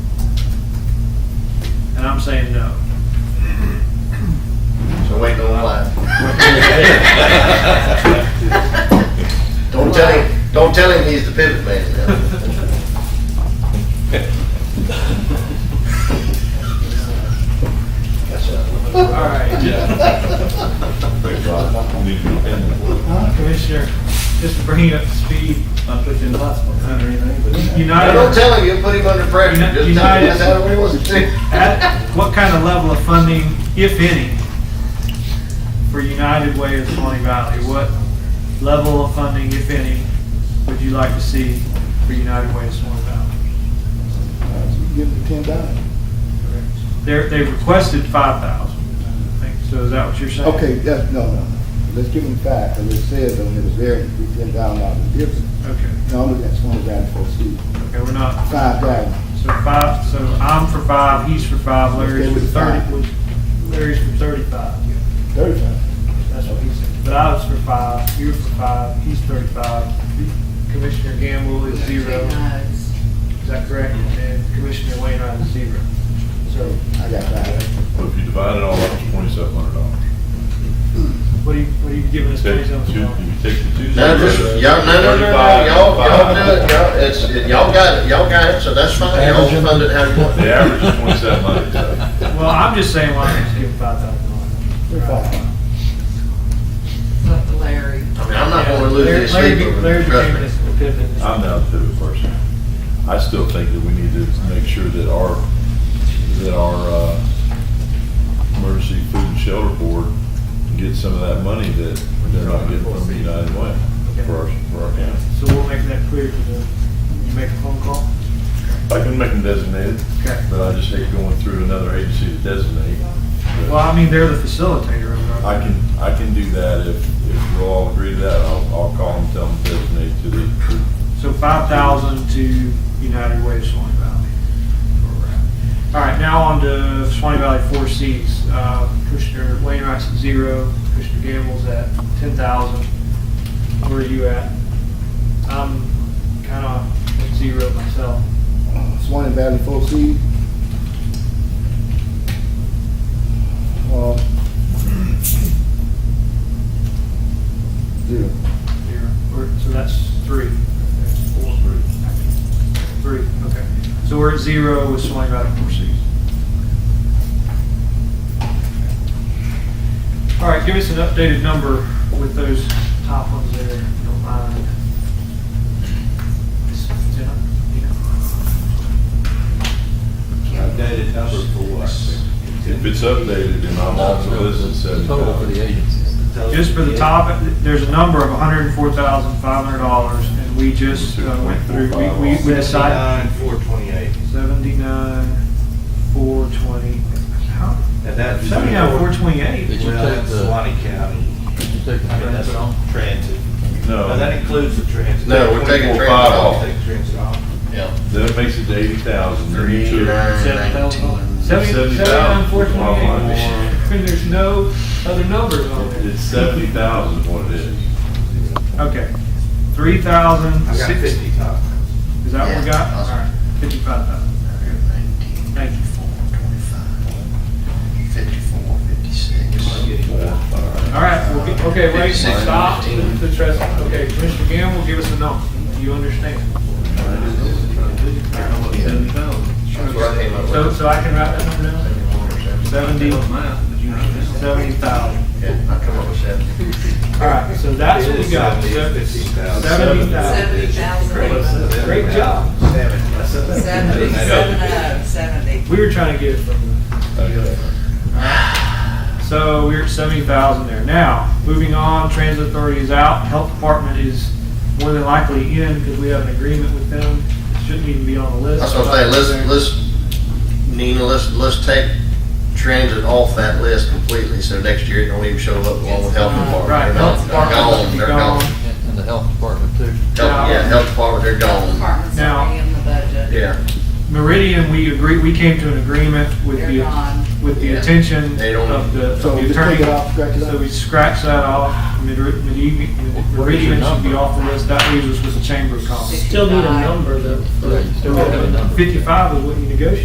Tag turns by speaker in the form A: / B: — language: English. A: saying no.
B: So wait no line. Don't tell him, don't tell him he's the pivot man now. That's
A: All
B: a-
A: right. Commissioner, just to bring you up to speed,
C: Not put you in the hospital or anything, but.
B: Now, Don't
A: United,
B: tell him, you'll put him under pressure, just tell him that's how it was.
A: at what kind of level of funding, if any, for United Way of Swanee Valley? What level of funding, if any, would you like to see for United Way of Swanee Valley?
D: Give them ten dollars.
A: They're, they requested five thousand, I think, so is that what you're saying?
D: Okay, yeah, no, no, no. let's give them five, because it says on it is very, we ten thousand dollars difference.
A: Okay,
D: uh, No, no, that's one of that for C,
A: okay, we're not,
D: five thousand.
A: so five, so I'm for five, he's for five, Larry's for
D: Let's go with
A: thirty,
D: five.
A: was- Larry's for thirty-five.
D: Thirty-five.
A: That's what he said. But I was for five, you were for five, he's thirty-five, Commissioner Gamble is zero, is that correct? And Commissioner Wainwright is zero.
D: So I got five.
E: Well, if you divide it all up, it's twenty-seven hundred dollars.
A: What are you, what are you giving us
E: Take
A: based
E: the
A: on?
E: two, you take the two.
B: No, just, y'all, no, no, no, no, y'all, y'all do it, y'all, it's, it- y'all got it, y'all got it, so that's fine, y'all fund it how you want.
E: The average is twenty-seven hundred.
A: Well, I'm just saying, why don't you just give five thousand
D: We're
A: dollars?
D: five.
F: Up to Larry.
B: I mean, I'm not gonna lose
A: Larry-
B: this
A: Larry
B: sleep
A: be-
B: over
A: Larry
B: it, trust
A: became
B: me.
A: this pivot.
E: I'm down to the person. I still think that we need to make sure that our, that our, uh, emergency food and shelter board gets some of that money that they're not getting from the United Way for our, for our county.
A: So we'll make that clear to them. You make a phone call?
E: I can make them designated,
A: Okay.
E: but I just hate going through another agency to designate. But-
A: Well, I mean, they're the facilitator of
E: I
A: our,
E: can, I can do that if, if you all agree to that, I'll, I'll call and tell them to designate to the,
A: so five thousand to United Way of Swanee Valley. All right, now on to Swanee Valley Four Cs. Uh, Commissioner Wainwright's at zero, Commissioner Gamble's at ten thousand. Where are you at? I'm kind of at zero myself.
D: Swan and Valley four C. Well. Zero.
A: Zero. We're- So that's three. Four, three. Three, okay. So we're at zero with Swanee Valley Four Cs. All right, give us an updated number with those top ones there, if you don't mind. Jenna, you know?
C: Updated number for
E: if it's updated, and I'm also listening seventy
G: Total for the
E: thousand.
G: agencies.
C: what?
A: Just for the top, there's a number of hundred and four thousand five hundred dollars, and we just uh, went through, we, we we decided.
C: Seventy-nine, four twenty-eight.
A: Seventy-nine, four twenty. How,
C: And that's.
A: seventy-nine, four
G: Did
A: twenty-eight?
G: you
C: Well,
G: take
C: that's
G: the,
C: Swanee County.
G: did you take the
C: I mean, that's
G: transit off?
C: transit. No, that
E: No,
C: includes the transit.
B: No, we're taking transit off.
C: Take transit off.
B: Yeah.
E: that makes it to eighty thousand, then you took,
B: Nine, nineteen.
A: Seventy- Seventy-nine, four
E: Wow.
A: twenty-eight. And there's no other numbers on there.
E: it's seventy thousand is what it is.
A: Okay, three thousand,
C: I got
A: six,
C: fifty top.
A: is that what we got?
B: Yeah.
A: All right, fifty-five thousand.
B: Nineteen,
A: Thank you.
B: four, twenty-five, fifty-four,
C: I'm
B: fifty-six.
C: getting more.
A: All right, we'll get- okay, wait,
B: Fifty-six,
A: stop
B: fifteen.
A: the trust. Okay, Commissioner Gamble, give us a number. You understand?
B: Yeah, That's what I came up
A: So,
B: with.
A: so I can write that number down? Seventy, seventy thousand.
B: Yeah, I come up with seventy.
A: All right, so that's what we got.
C: Fifteen thousand.
A: Seventy thousand.
F: Seventy thousand.
A: Great job.
F: Seventy, seven, oh, seventy.
A: We were trying to get it from the,
E: Okay.
A: so we're at seventy thousand there. Now, moving on, transit authority is out, health department is more than likely in because we have an agreement with them. It Shouldn't even be on the list.
B: That's what I'm saying, let's, let's, Nina, let's, let's take transit off that list completely, so next year it don't even show up along with health department.
A: Right,
B: They're
A: health
B: not- they're
A: department,
B: gone,
A: be
B: they're
A: gone.
B: gone.
G: And and the health department too.
B: Health- Yeah, health department, they're
F: Health
B: gone,
F: department's
A: Now-
F: already in the budget.
B: yeah,
A: Meridian, we agree, we came to an agreement with
F: They're
A: the,
F: gone.
A: with the
B: Yeah.
A: attention
B: They don't-
A: of the of
D: So
A: the
D: just take
A: attorney.
D: it off, scratch it
A: So
D: out.
A: we scratch that off, Meri- Meridian Meridian should be off the list, that leaves us with the chamber of commerce.
F: Still need a number.
G: Yeah, you still gotta have a number.
A: Fifty-five is what you negotiated.